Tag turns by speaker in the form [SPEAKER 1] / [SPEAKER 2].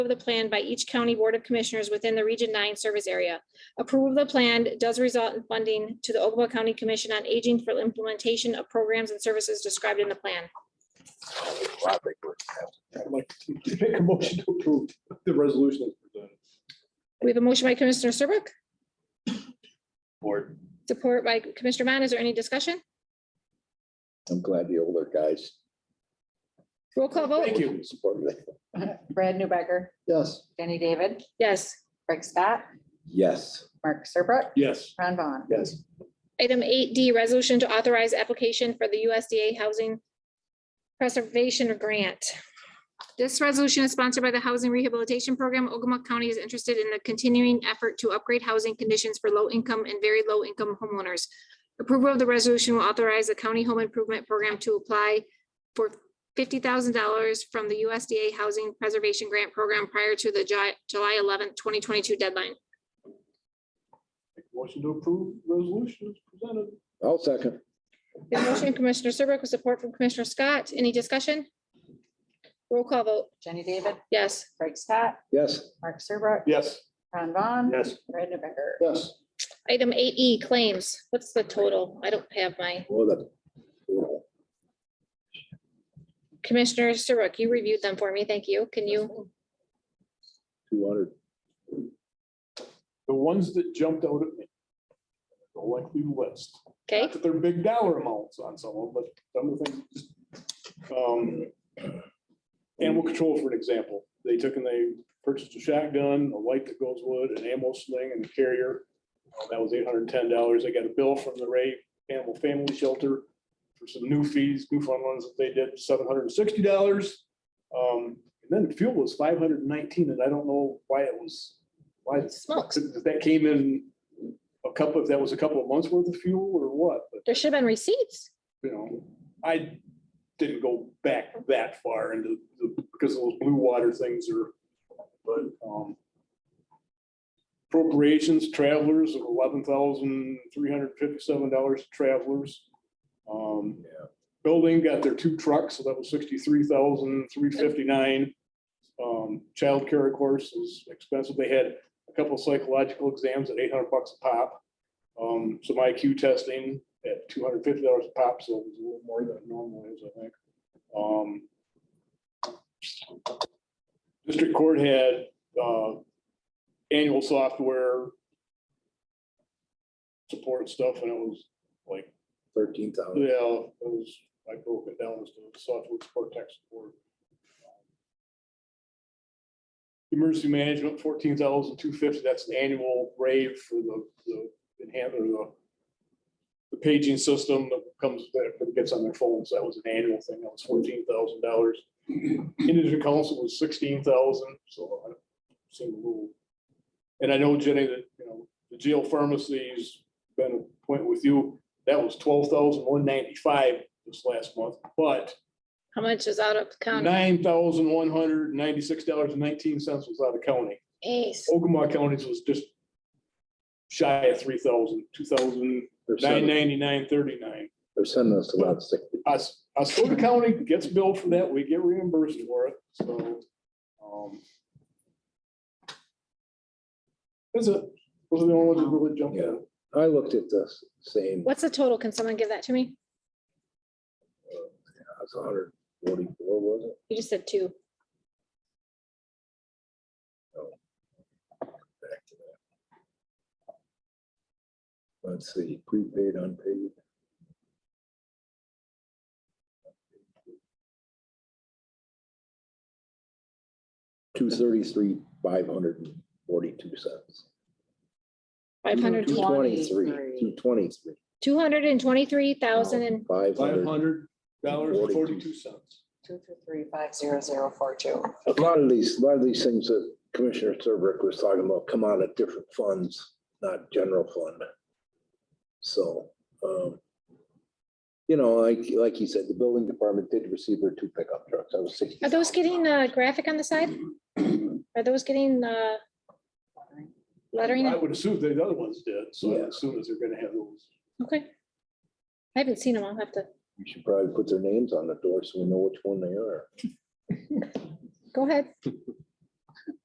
[SPEAKER 1] of the plan by each county board of commissioners within the Region Nine service area. Approval of the plan does result in funding to the Ogama County Commission on Aging for implementation of programs and services described in the plan.
[SPEAKER 2] I'd like to make a motion to approve the resolution as presented.
[SPEAKER 1] We have a motion by Commissioner Serbrook,
[SPEAKER 3] Board.
[SPEAKER 1] support by Commissioner Vaughn. Is there any discussion?
[SPEAKER 3] I'm glad the older guys.
[SPEAKER 1] Roll call vote.
[SPEAKER 2] Thank you.
[SPEAKER 3] supported it.
[SPEAKER 4] Brad Newbecker,
[SPEAKER 3] Yes.
[SPEAKER 4] Jenny David,
[SPEAKER 1] Yes.
[SPEAKER 4] Craig Scott,
[SPEAKER 3] Yes.
[SPEAKER 4] Mark Serbrook,
[SPEAKER 2] Yes,
[SPEAKER 4] Ron Vaughn.
[SPEAKER 3] Yes.
[SPEAKER 1] Item eight D, resolution to authorize application for the USDA Housing Preservation Grant. This resolution is sponsored by the Housing Rehabilitation Program. Ogama County is interested in the continuing effort to upgrade housing conditions for low-income and very low-income homeowners. Approval of the resolution will authorize the County Home Improvement Program to apply for fifty thousand dollars from the USDA Housing Preservation Grant Program prior to the Ju- July eleventh, twenty twenty-two deadline.
[SPEAKER 2] Make a motion to approve resolution as presented.
[SPEAKER 3] I'll second.
[SPEAKER 1] The motion Commissioner Serbrook with support from Commissioner Scott. Any discussion? Roll call vote.
[SPEAKER 4] Jenny David,
[SPEAKER 1] Yes.
[SPEAKER 4] Craig Scott,
[SPEAKER 3] Yes.
[SPEAKER 4] Mark Serbrook,
[SPEAKER 2] Yes.
[SPEAKER 4] Ron Vaughn.
[SPEAKER 2] Yes.
[SPEAKER 4] Brad Newbecker.
[SPEAKER 3] Yes.
[SPEAKER 1] Item eight E claims. What's the total? I don't have my
[SPEAKER 3] Well, that.
[SPEAKER 1] Commissioner Serbrook, you reviewed them for me. Thank you. Can you?
[SPEAKER 3] Two hundred.
[SPEAKER 2] The ones that jumped out at me. The lengthy list.
[SPEAKER 1] Okay,
[SPEAKER 2] Not that They're big dollar amounts on some of them, but some of the things. just, um, Animal control, for an example, they took and they purchased a shotgun, a light that goes wood, an ammo sling and a carrier. Uh, That was eight hundred and ten dollars. They got a bill from the Ray Animal Family Shelter for some new fees, new fun ones that they did, seven hundred and sixty dollars. Um, And then fuel was five hundred and nineteen, and I don't know why it was, why it's
[SPEAKER 1] smokes.
[SPEAKER 2] if That came in a couple, if that was a couple of months worth of fuel or what, but,
[SPEAKER 1] There should have been receipts.
[SPEAKER 2] you know, I didn't go back that far into, the- because those blue water things are, but, um, appropriations, travelers, eleven thousand three hundred fifty-seven dollars travelers. Um, Building got their two trucks, so that was sixty-three thousand three fifty-nine. Um, childcare, of course, is expensive. They had a couple psychological exams at eight hundred bucks a pop. Um, some IQ testing at two hundred fifty dollars a pop, so it was a little more than it normally is, I think. Um. District Court had, uh, annual software. Support stuff, and it was like
[SPEAKER 3] Thirteen thousand.
[SPEAKER 2] yeah, it was, I broke it down as the software support tech support. Emergency management, fourteen thousand two fifty, that's an annual rave for the, the enhan- or the. The paging system that comes, that gets on their phones, that was an annual thing, that was fourteen thousand dollars. Indigent council was sixteen thousand, so I seem a little. And I know Jenny, that, you know, the jail pharmacy's been a point with you, that was twelve thousand one ninety-five this last month, but
[SPEAKER 1] How much is out of county?
[SPEAKER 2] nine thousand one hundred ninety-six dollars and nineteen cents was out of county.
[SPEAKER 1] Ace.
[SPEAKER 2] Ogama County's was just shy of three thousand, two thousand
[SPEAKER 3] They're
[SPEAKER 2] nine
[SPEAKER 3] sending-
[SPEAKER 2] ninety-nine thirty-nine.
[SPEAKER 3] they're sending us a lot of sick.
[SPEAKER 2] Us, Ascota County gets billed for that, we get reimbursed for it, so. um, That's it, those are the only ones that really jumped out.
[SPEAKER 3] I looked at the same,
[SPEAKER 1] What's the total? Can someone give that to me?
[SPEAKER 3] uh, it's hundred forty-four, was it?
[SPEAKER 1] You just said two.
[SPEAKER 3] Back to that. Let's see, prepaid, unpaid. Two thirty-three, five hundred and forty-two cents.
[SPEAKER 1] Five hundred,
[SPEAKER 3] Two twenty-three, two twenty-three,
[SPEAKER 1] two hundred and twenty-three thousand and
[SPEAKER 3] five
[SPEAKER 2] Five
[SPEAKER 3] hundred.
[SPEAKER 2] hundred dollars and forty-two
[SPEAKER 3] 42
[SPEAKER 2] cents.
[SPEAKER 4] Two two three five zero zero four two.
[SPEAKER 3] A lot of these, a lot of these things that Commissioner Serbrook was talking about come out of different funds, not general fund. So, um, you know, like, like he said, the building department did receive their two pickup trucks. I was sixty.
[SPEAKER 1] Are those getting a graphic on the side? Are those getting uh lettering?
[SPEAKER 2] I would assume the other ones did, so
[SPEAKER 3] Yeah.
[SPEAKER 2] as soon as they're gonna have those.
[SPEAKER 1] Okay. I haven't seen them. I'll have to,
[SPEAKER 3] We should probably put their names on the door so we know which one they are.
[SPEAKER 1] go ahead.